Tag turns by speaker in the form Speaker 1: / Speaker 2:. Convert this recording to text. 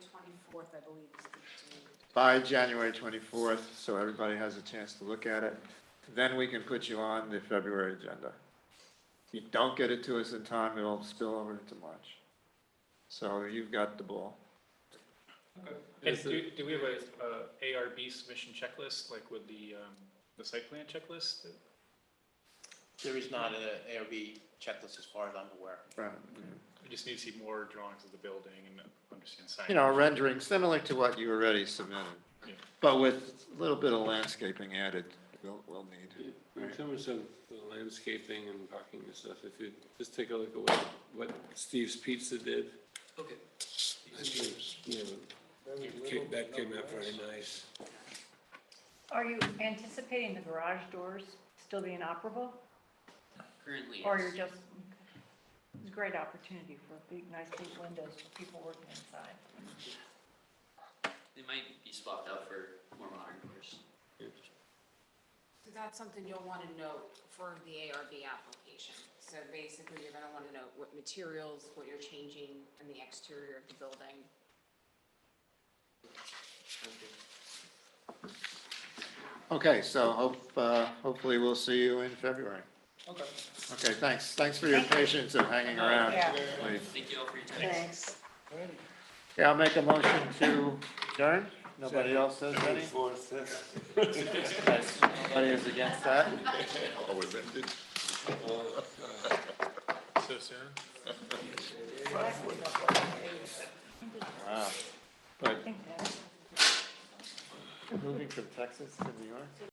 Speaker 1: 24th, I believe, is the due.
Speaker 2: by January 24th, so everybody has a chance to look at it. Then we can put you on the February agenda. If you don't get it to us in time, it'll spill over into March. So you've got the ball.
Speaker 3: And do, do we have a, uh, ARB submission checklist, like with the, um, the site plan checklist?
Speaker 4: There is not an ARB checklist as far as I'm aware.
Speaker 2: Right.
Speaker 3: We just need to see more drawings of the building and understand signage.
Speaker 2: You know, a rendering similar to what you already submitted,
Speaker 3: Yeah.
Speaker 2: but with a little bit of landscaping added, we'll, we'll need.
Speaker 5: In terms of the landscaping and parking and stuff, if you just take a look at what, what Steve's Pizza did.
Speaker 6: Okay.
Speaker 5: I think, you know, it came- That came out very nice.
Speaker 7: Are you anticipating the garage doors still being operable?
Speaker 6: Currently,
Speaker 7: Or you're
Speaker 6: it's,
Speaker 7: just, it's a great opportunity for big, nice big windows for people working inside.
Speaker 6: they might be swapped out for more modern doors.
Speaker 1: So that's something you'll want to note for the ARB application. So basically, you're going to want to note what materials, what you're changing, and the exterior of the building.
Speaker 2: Okay, so hope, uh, hopefully we'll see you in February.
Speaker 6: Okay.
Speaker 2: Okay, thanks. Thanks for your patience of hanging around.
Speaker 7: Yeah.
Speaker 2: Please.
Speaker 6: Thank you all for your time.
Speaker 7: Thanks.
Speaker 2: Okay, I'll make a motion to adjourn. Nobody else says any?
Speaker 5: Fourth, fifth.
Speaker 2: Nobody is against that?
Speaker 3: Oh, So soon?
Speaker 2: Wow. But
Speaker 7: I think that's.
Speaker 2: moving from Texas to New York?